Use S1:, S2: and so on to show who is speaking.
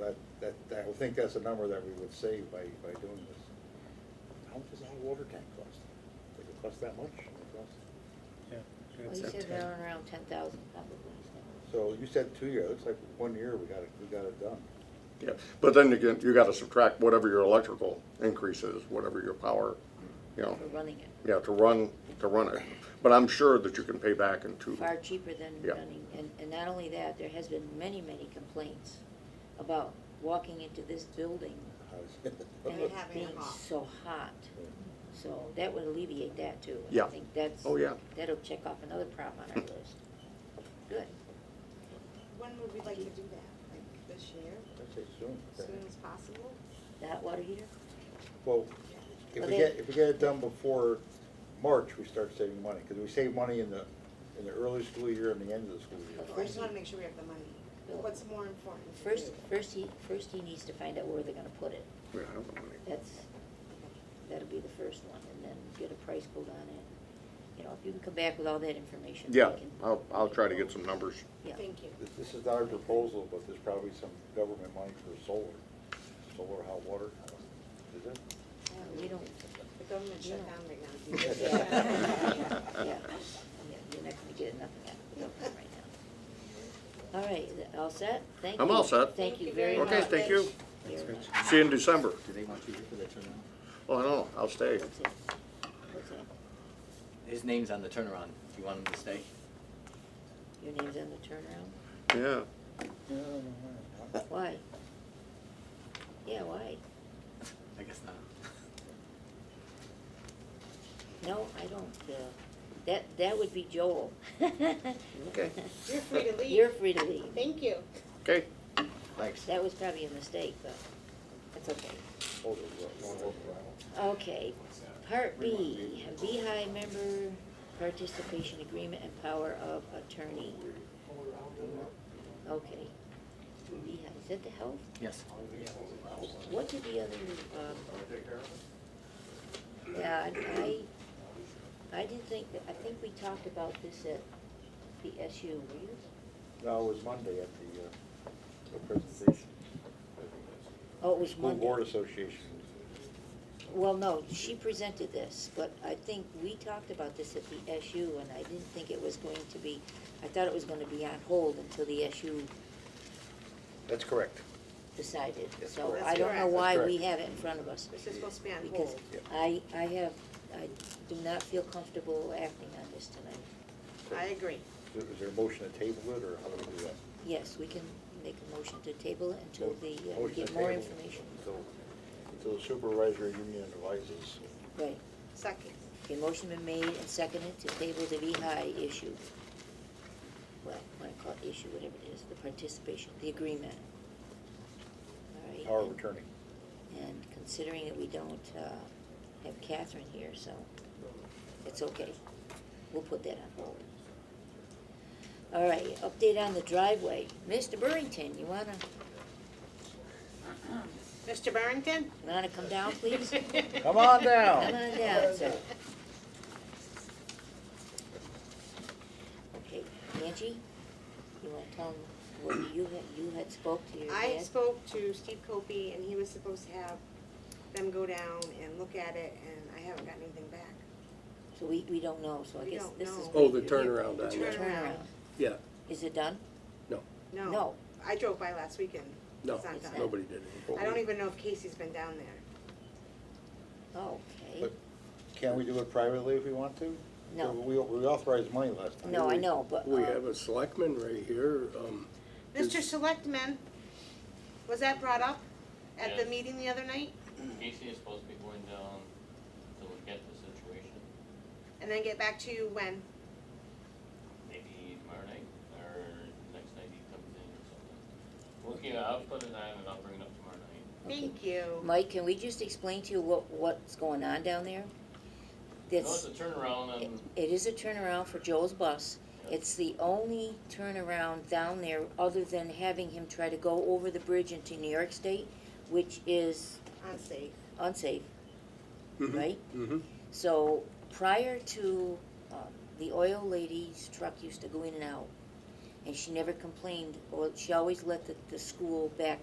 S1: that, that, that- I would think that's a number that we would save by, by doing this. How much does a hot water tank cost? Does it cost that much? It costs-
S2: Yeah.
S3: Well,
S2: it's
S3: you
S2: up
S3: said
S2: to-
S3: they're on around ten thousand probably.
S1: So you said two years, looks like one year we got it, we got it done.
S4: Yeah, but then you can, you gotta subtract whatever your electrical increase is, whatever your power, you know,
S3: For running it,
S4: yeah, to run, to run it. But I'm sure that you can pay back in two.
S3: far cheaper than
S4: Yeah.
S3: running, and, and not only that, there has been many, many complaints about walking into this building and it
S5: having it
S3: being
S5: hot.
S3: so hot. So that would alleviate that too. and
S4: Yeah.
S3: I think that's.
S4: Oh, yeah.
S3: That'll check off another problem on our list. Good.
S5: When would we like to do that? Like this year,
S1: I'd say soon.
S5: as soon as possible?
S3: The hot water heater?
S1: Well, if
S3: Well,
S1: we
S3: they-
S1: get, if we get it done before March, we start saving money, because we save money in the, in the early school year and the end of the school year.
S5: I just wanna make sure we have the money. What's more important? to
S3: First,
S5: do?
S3: first he, first he needs to find out where they're gonna put it.
S4: Yeah, I don't know.
S3: That's, that'll be the first one, and then get a price quote on it. You know, if you can come back with all that information. we
S4: Yeah,
S3: can-
S4: I'll, I'll try to get some numbers.
S3: Yeah,
S5: Thank you.
S1: This- This is not a proposal, but there's probably some government money for solar, solar hot water, I don't- is it?
S3: we don't,
S5: The government shut down right now.
S3: yeah, yeah, you're not gonna get nothing out of the government right now. All right, is it all set? Thank you.
S4: I'm all set.
S3: Thank you very much.
S4: Okay, thank you.
S3: Very much.
S4: See you in December.
S6: Do they want you here for the turnaround?
S4: Oh, I don't know, I'll stay.
S3: What's that? What's that?
S6: His name's on the turnaround. Do you want him to stay?
S3: Your name's on the turnaround?
S4: Yeah,
S3: Why? Yeah, why?
S6: I guess not.
S3: No, I don't, uh, that, that would be Joel.
S4: Okay.
S5: You're free to leave.
S3: You're free to leave.
S5: Thank you.
S4: okay.
S6: Thanks.
S3: That was probably a mistake, but that's okay.
S1: Hold it, hold it, hold it.
S3: Okay, part B, VHI member participation agreement and power of attorney. Okay. VHI, is that the health?
S6: Yes.
S3: What did the other, um? Yeah, I, I- I didn't think, that- I think we talked about this at the SU, were you?
S1: No, it was Monday at the, uh, the presentation.
S3: Oh, it was
S1: School
S3: Monday.
S1: Board Association.
S3: Well, no, she presented this, but I think we talked about this at the SU, and I didn't think it was going to be, I thought it was gonna be on hold until the SU
S1: That's correct.
S3: decided.
S1: That's
S3: So
S1: correct.
S3: I don't know why
S5: That's
S3: we
S1: correct.
S3: have it in front of us.
S5: This is supposed to be on
S3: Because
S5: hold.
S1: Yep.
S3: I, I have, I do not feel comfortable acting on this tonight.
S5: I agree.
S1: Is is there a motion to table it, or how do we do that?
S3: Yes, we can make a motion to table it until the, uh, we
S1: Motion
S3: get
S1: to
S3: more
S1: table
S3: information.
S1: until- Until the supervisory union advises.
S3: Right.
S5: Second.
S3: The motion been made and seconded to table the VHI issue. Well, wanna call it issue, whatever it is, the participation, the agreement. All right,
S1: Power of
S3: and-
S1: attorney.
S3: And considering that we don't, uh, have Catherine here, so it's okay. We'll put that on hold. All right, update on the driveway. Mr. Burrington, you wanna,
S5: Mr. Barrington?
S3: wanna come down, please?
S1: Come on
S3: Come
S1: down.
S3: on down, sir. Okay, Angie, you wanna tell them, what you had, you had spoke to your dad?
S5: I spoke to Steve Copey and he was supposed to have them go down and look at it and I haven't gotten anything back.
S3: So we, we don't know, so I
S5: We
S3: guess
S5: don't
S3: this
S5: know.
S3: is.
S2: Oh,
S3: what
S2: the
S3: you're-
S2: turnaround
S3: The
S2: on
S5: that.
S3: turnaround.
S2: Yeah,
S3: Is it done?
S2: no,
S5: No.
S3: No.
S5: I drove by last weekend.
S2: no,
S5: It's not done.
S2: nobody did it.
S5: I don't even know if Casey's been down there.
S3: Okay.
S1: But can we do it privately if we want to?
S3: No.
S1: We we authorized money last time.
S3: No, I know, but.
S2: We
S3: uh,
S2: have a selectman right here, um,
S5: Mr. Selectman, was that brought up at the
S7: Yes.
S5: meeting the other night?
S7: Casey is supposed to be going down to look at the situation,
S5: And then get back to you when?
S7: maybe tomorrow night, or next night he comes in or something. Well, yeah, I'll put it on and I'll bring it up tomorrow night.
S5: Thank you.
S3: Mike, can we just explain to you what, what's going on down there?
S7: No, it's
S3: That's,
S7: a turnaround
S3: it
S7: on,
S3: it is a turnaround for Joel's bus.
S7: Yeah.
S3: It's the only turnaround down there, other than having him try to go over the bridge into New York State, which is
S5: Unsafe.
S3: unsafe,
S2: Mhm.
S3: right?
S2: mhm,
S3: So prior to, um, the oil lady's truck used to go in and out, and she never complained, or she always let the, the school back,